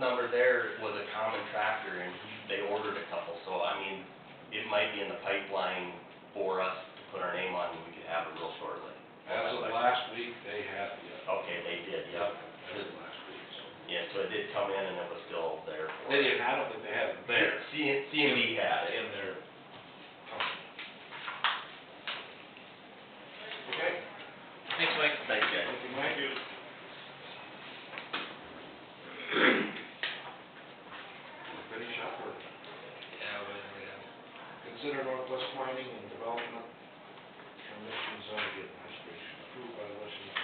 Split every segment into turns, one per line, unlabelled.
number there was a common tractor and he- they ordered a couple, so I mean, it might be in the pipeline for us to put our name on and we could have it real shortly.
As of last week, they have, yeah.
Okay, they did, yep.
As of last week, so.
Yeah, so it did come in and it was still there. for
They
us.
didn't, I don't think they have it
There,
there.
C, C and D had it.
In their company. Okay?
Thanks, Mike. Thanks, guys.
Thank you, Mike. Ready, shop or?
Yeah, we we have
Consider Northwest Mining and Development Commission zoning administration approved by resolution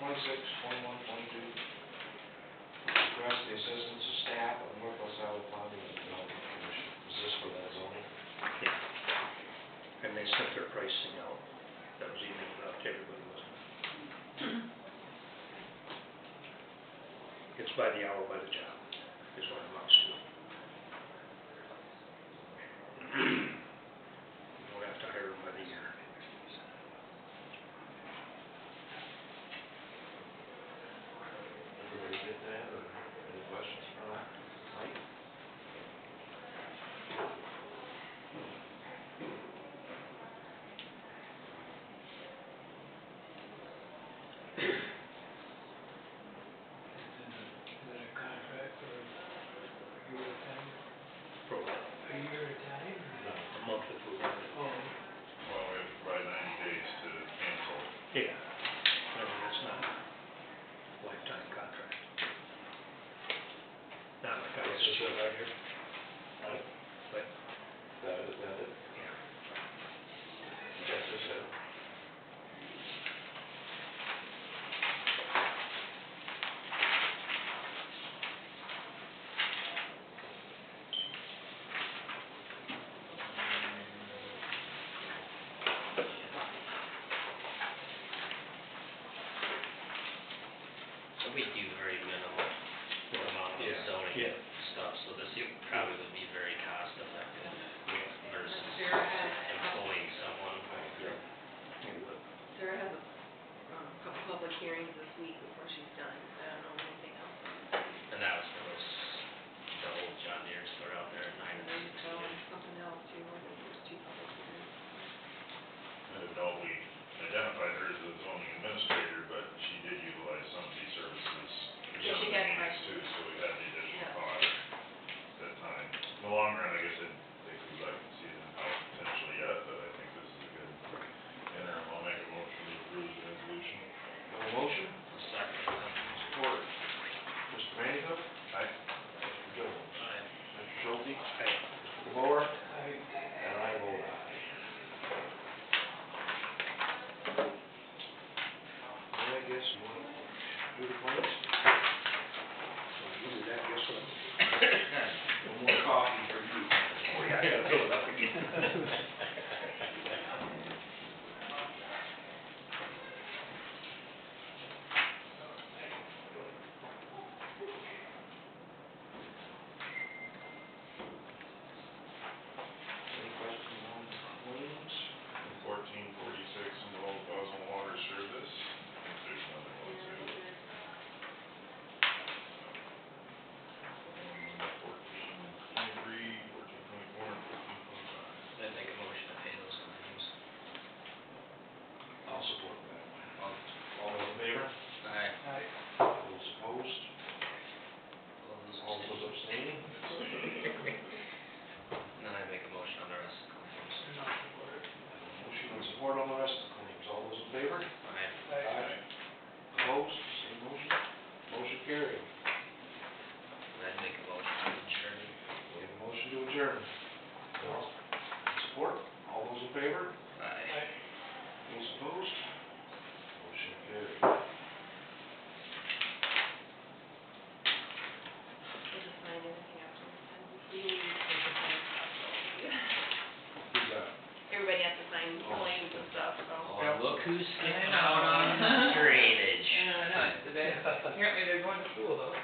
twenty-six, twenty-one, twenty-two. Request the assistance of staff of Northwest Iowa Planning and Development Commission. Is this for that zoning?
and they sent their pricing out. That was emailed out to everybody, wasn't it? It's by the hour, by the job, is what it amounts to. We'll have to hire them by the year.
Everybody get that, or any questions for that? Mike?
a contract for a year at a time,
For what?
a year at a time?
A month if we want it.
Oh,
Well, we have to provide ninety days to cancel.
Yeah. I mean, it's not a lifetime contract. Not like I was just right here. But,
That is, that it?
yeah.
That's just it.
So we do very minimal amount of
Yeah,
zoning
yeah.
stuff, so this probably would be very cost effective versus employing someone.
It would.
Sarah has a, um, couple public hearings this week before she's done, so I don't know anything else.
And that was for those, the old John Deere store out there at nine and
And then
six.
um, something else too, I think there's two public hearings.
I don't know, we identified her as the zoning administrator, but she did utilize some of these services for some
Yeah, she
of the
had
meetings
questions.
too, so we had the additional
Yeah.
cost at that time. In the long run, I guess I think we'd like to see them out potentially yet, but I think this is a good interim. I'll make a motion to approve the resolution.
Have a motion? Support. Mr. Manningham?
Aye.
Mr. Jones?
Aye.
Mr. Schulte?
Aye.
Mr. Moore?
I,
And I vote aye. Well, I guess you want to do the claims?
So you do that, guess what?
One more coffee for you.
Oh, yeah, I gotta fill it up again.
Any questions on the claims?
Fourteen forty-six in the old Boswell Water Service. I think there's another one too. Fourteen twenty-three, fourteen twenty-four, and fourteen twenty-five.
Then make a motion to pay those claims.
I'll support that. All those in favor?
I,
Aye.
All those opposed? All those abstaining?
Then I make a motion on the rest of the claims.
Motion and support on the rest of the claims. All those in favor?
Aye.
I,
Opposed? Same motion? Motion carried.
Then make a motion to adjourn.
We have a motion to adjourn. All- Support? All those in favor?
Aye.
I.
Those opposed? Motion carried.
Did you find anything after this time? Do you need to sign stuff?
Who's that?
Everybody has to sign claims and stuff, so.
Oh, look who's skipping
out on
drainage.
Yeah, I know, it's today. Apparently they're going to school though.
Oh,